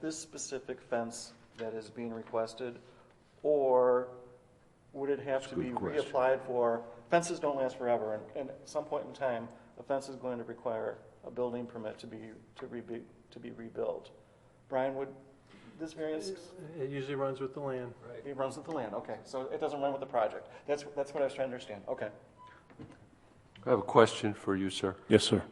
this specific fence that is being requested? Or would it have That's a to be good question. reapplied for? Fences don't last forever, and, and at some point in time, a fence is going to require a building permit to be, to rebu, to be rebuilt. Brian, would this variance It usually runs with the land. it runs with the land, okay, so it doesn't run with the project. That's, that's what I was trying to understand, okay. I have a question for you, sir. Um, Yes, sir.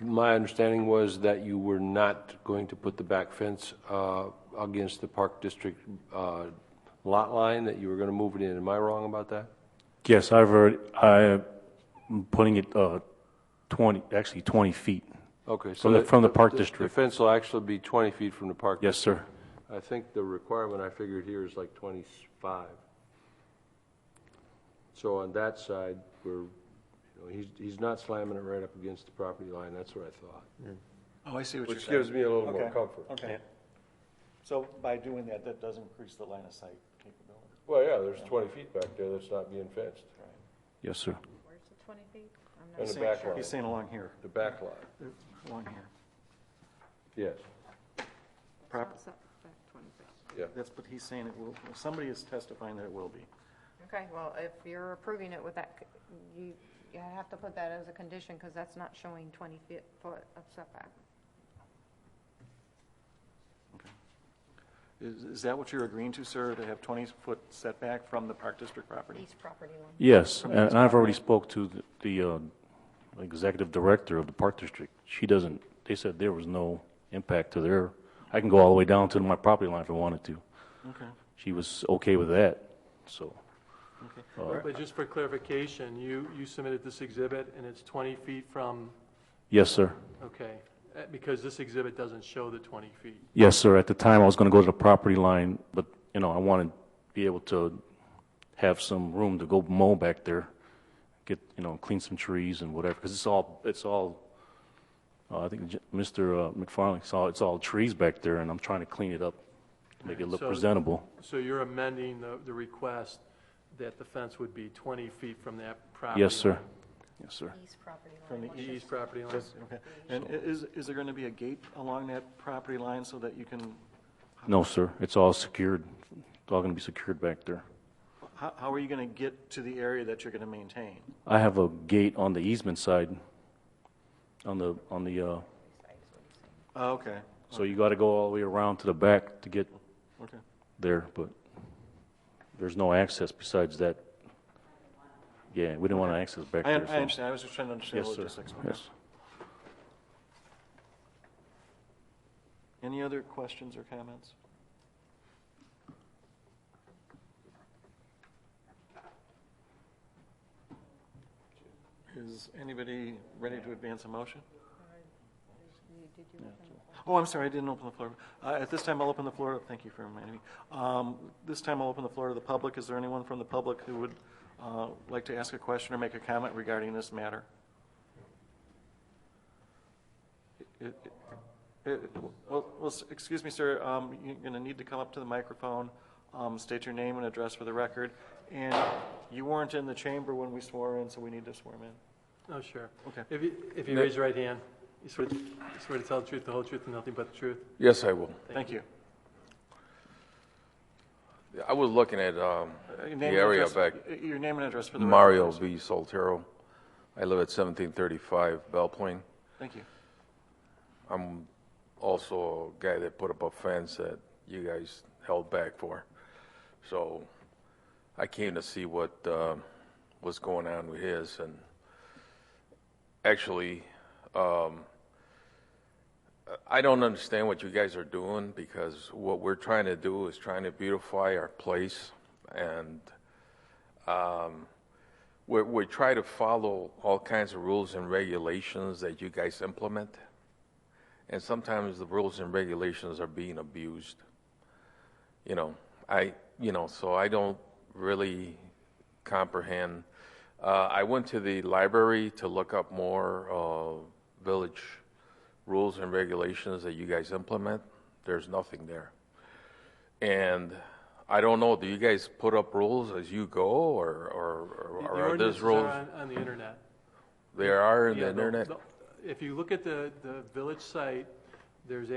My understanding was that you were not going to put the back fence uh, against the Park District uh, lot line, that you were going to move it in. Am I wrong about that? Yes, I've heard, I'm putting it uh, 20, actually 20 feet. Okay. so From the- that- from the Park The District. fence will actually be 20 feet from the Park. Yes, sir. I think the requirement I figured here is like 25. So on that side, we're, you know, he's he's not slamming it right up against the property line. That's what I thought. Oh, I see what Which gives me a little more Okay, comfort. Okay. So by doing that, that does increase the line of sight capability, Well, yeah, there's 20 feet back there that's not being fenced, right? Yes, sir. Where's the 20 feet? I'm not And the He's back saying- line. He's saying along here, the back lot, along here. yes, Prop, It's not back 20 feet. yeah. that's what he's saying, it will, somebody is testifying that it will be. Okay, well, if you're approving it with that, c- you, you have to put that as a condition because that's not showing 20 feet, foot of setback. Is, is that what you're agreeing to, sir, to have twenty-foot setback from the Park District property? East property line. Yes, and and I've already spoke to the- the uh, executive director of the Park District. She doesn't, they said there was no impact to their, I can go all the way down to my property line if I wanted to. Okay, She was okay with that, so. okay. Uh, But just for clarification, you, you submitted this exhibit and it's 20 feet from, Yes, sir. okay, Uh, because this exhibit doesn't show the 20 feet. Yes, sir. At the time, I was going to go to the property line, but, you know, I want to be able to have some room to go mow back there, get, you know, clean some trees and whatever, because it's all, it's all, uh, I think J- Mr. uh, McFarland saw, it's all trees back there, and I'm trying to clean it up, make it look So- presentable. So you're amending the, the request that the fence would be 20 feet from that property. Yes, sir. Yes, sir. East property line. From the E, line, the East property line. Okay, and i- is, is there gonna be a gate along that property line so that you can, No, sir. It's all secured. It's all going to be secured back there. how, how are you gonna get to the area that you're gonna maintain? I have a gate on the easement side, on the, on the, uh, Oh, okay, so you got to go all the way around to the back to get okay. there, but there's no access besides that. Yeah, we didn't want to access back I, there. un- so- I understand, I was just trying to understand Yes, the sir. logistics. Okay. Yes. Any other questions or comments? Is anybody ready to advance a motion? You- Did you open the floor? Oh, I'm sorry, I didn't open the floor. Uh, At this time, I'll open the floor, thank you for reminding me. Um, This time, I'll open the floor to the public. Is there anyone from the public who would uh, like to ask a question or make a comment regarding this matter? It- it- it- Well, well, s- excuse me, sir, um, you're going to need to come up to the microphone, um, state your name and address for the record, and you weren't in the chamber when we swore in, so we need to swear 'em in. Oh, sure. Okay. If you, if you raise your right hand, you swear, to- you swear to tell the truth, the whole truth, and nothing but the truth? Yes, I will. Thank you. I was looking at Uh, um, your name the and area address- back, y- Your name and address for the record. Mario V. Soltero. I live at 1735 Bell Plain. Thank you. I'm also a guy that put up a fence that you guys held back for. So I came to see what uh, was going on with his, and actually, um, I don't understand what you guys are doing because what we're trying to do is trying to beautify our place, and um, we we try to follow all kinds of rules and regulations that you guys implement. And sometimes the rules and regulations are being abused. You know, I, you know, so I don't really comprehend. Uh, I went to the library to look up more uh, village rules and regulations that you guys implement. There's nothing there. And I don't know, do you guys put up rules as you go or, or, The- or the are ordinances these rules? are on- On the internet. There are in Yeah, the the- internet? the- If you look at the, the village site, there's